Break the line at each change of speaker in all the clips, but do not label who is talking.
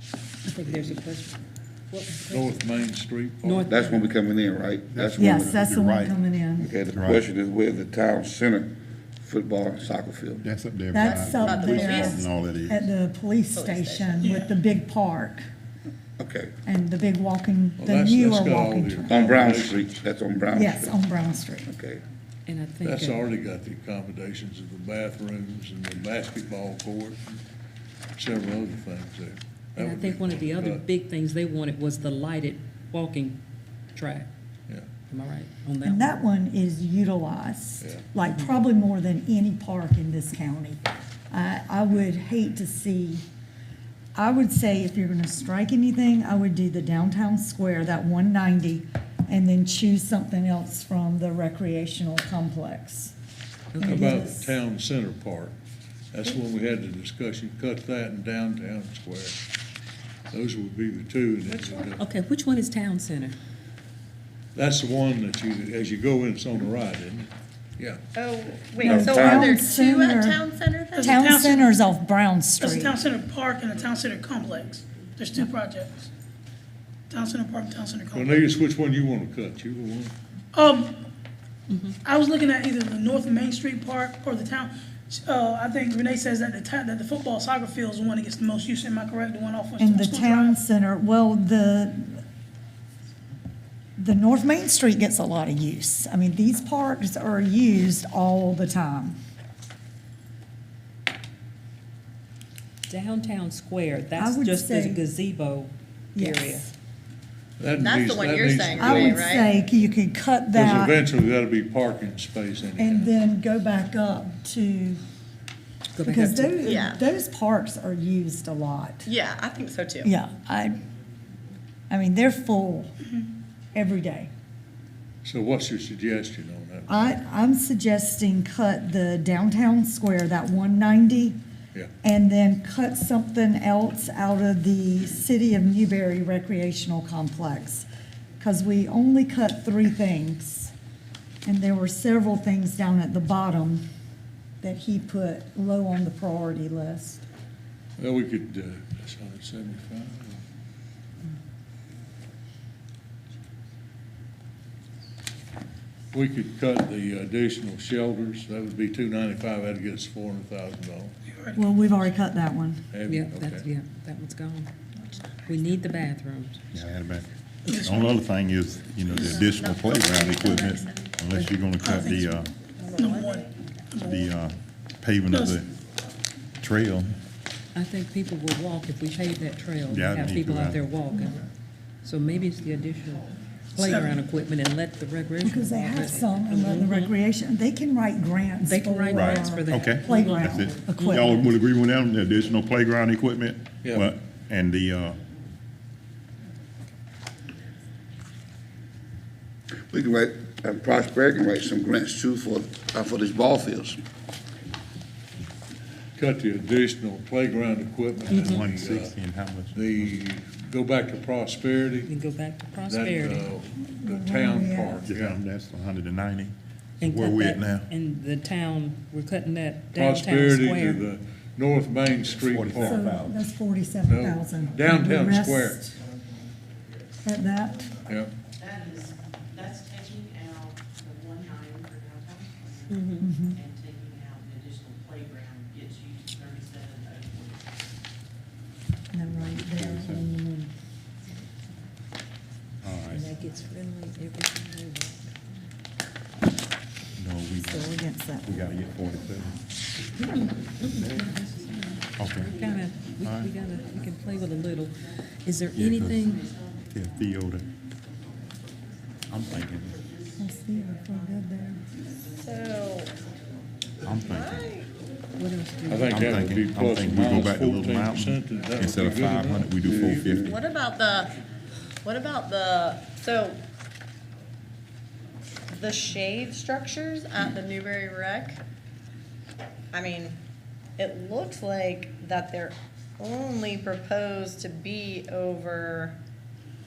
think there's a question. What was the question?
North Main Street. Park.
North-
That's when we coming in, right? That's when
Yes,
we-
that's the one
right.
coming in.
Okay, the question is where's the town center football soccer field?
That's up there.
That's
by
up
the police
there.
station And all that
At
is.
the police station with the big park
Okay,
and the big walking,
Well,
the
that's-
newer
that's got all
walking.
the-
trail.
on Brown Street, that's on Brown Street?
Yes, on Brown Street.
Okay,
And I think.
That's
uh,
already got the accommodations of the bathrooms and the basketball court and several other things there. That
And I
would
think
be-
one of the other
but,
big things they wanted was the lighted walking track.
Yeah,
Am I right on that?
And
one?
that one is utilized,
Yeah.
like probably more than any park in this county. I, I would hate to see, I would say if you're gonna strike anything, I would do the downtown square, that one ninety, and then choose something else from the recreational complex.
how
And
about
just-
the town center park? That's when we had the discussion, cut that and downtown square. Those would be the two. and it's-
Okay, which one is town center?
That's the one that you, as you go in, it's on the right, isn't it? Yeah.
Oh,
No,
wait, so are there
town
two at
center.
Town Center then?
Town
Town
Cen-
center's off Brown
That's the
Street.
Town Center Park and the Town Center Complex. There's two projects. Town Center Park and Town Center Complex.
Cornelius, which one you want to cut? You the one?
Um, I was looking at either the North Main Street Park or the town, uh, I think Renee says that the town, that the football soccer field is the one that gets the most use, am I correct? The one off of
And the
School
town
Drive.
center, well, the, the North Main Street gets a lot of use. I mean, these parks are used all the time.
Downtown square, that's
would
just the
say-
gazebo area.
Yes.
That
That's the
needs-
one
that
you're
needs to
saying,
go.
I would
Right.
say you could
Because
cut that
eventually that'll be parking space
and
anyhow.
then go back up to,
Go back
because
up to-
those,
Yeah.
those parks are used a lot.
Yeah, I think so too.
Yeah, I, I mean, they're full
Mm-hmm.
every day.
So what's your suggestion on that?
I, I'm suggesting cut the downtown square, that one ninety,
Yeah,
and then cut something else out of the City of Newberry Recreational Complex. Because we only cut three things, and there were several things down at the bottom that he put low on the priority list.
well, we could, uh, that's hundred seventy-five. We could cut the additional shelters, that would be two ninety-five, that'd get us four hundred thousand dollars.
Well, we've already cut that one.
Yeah, that's, yeah, that one's gone. We need the bathrooms.
Yeah, I had it back. The only other thing is, you know, the additional playground equipment, unless you're gonna cut the, uh,
Number one.
the, uh, paving of the trail.
I think people will walk if we pave that trail,
Yeah, I
have
think
people
you're
out
right.
there walking. So maybe it's the additional playground equipment and let the recreation.
Because they have
department- Mm-hmm.
some in the recreation, Mm-hmm. they can write grants.
They can write
for
grants for that.
Okay. That's
Playground
it.
equipment.
Y'all would agree with them, the additional playground equipment?
Yeah.
Well, And the, uh,
we can write, and Prosper can write some grants too for, uh, for these ball fields.
Cut the additional playground equipment. and the, uh,
one sixty and how much?
The, go back to prosperity.
And go back to
That,
prosperity.
uh, the town
Yeah.
park, yeah.
That's hundred and ninety.
and
Where
cut
we at
that-
now?
And the town, we're cutting that downtown
Prosperity to
square.
the North Main Street
So
Park,
that's forty-seven thousand.
Downtown square.
At that,
yeah.
That is, that's taking out the one nine for downtown plan and taking out the additional playground gets you to thirty-seven oh four.
and then right there. and
And that gets friendly every time they walk.
No, we,
then Go against that.
we gotta get forty-seven. Okay,
Kind of, we, we gotta, we can play with a little. Is there anything,
yeah, Theo, the- I'm thinking,
That's the, we're good there.
So,
I'm thinking.
what else do,
I think
I'm
that would be
thinking, I'm
plus or
thinking we go
minus
back to Little
fourteen percent.
Mountain. Instead of five hundred, we do four fifty.
what about the, what about the, so the shade structures at the Newberry Rec? I mean, it looks like that they're only proposed to be over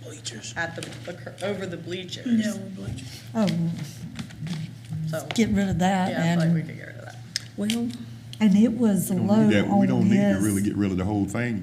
Bleachers.
at the- the, cur- over the bleachers.
Yeah, we're bleachers.
Oh,
So,
get rid of that
yeah, I feel like we
and,
could get rid of that.
well,
and it was
We
low
don't need that. We
on
don't need to really
his.
get rid of the whole thing,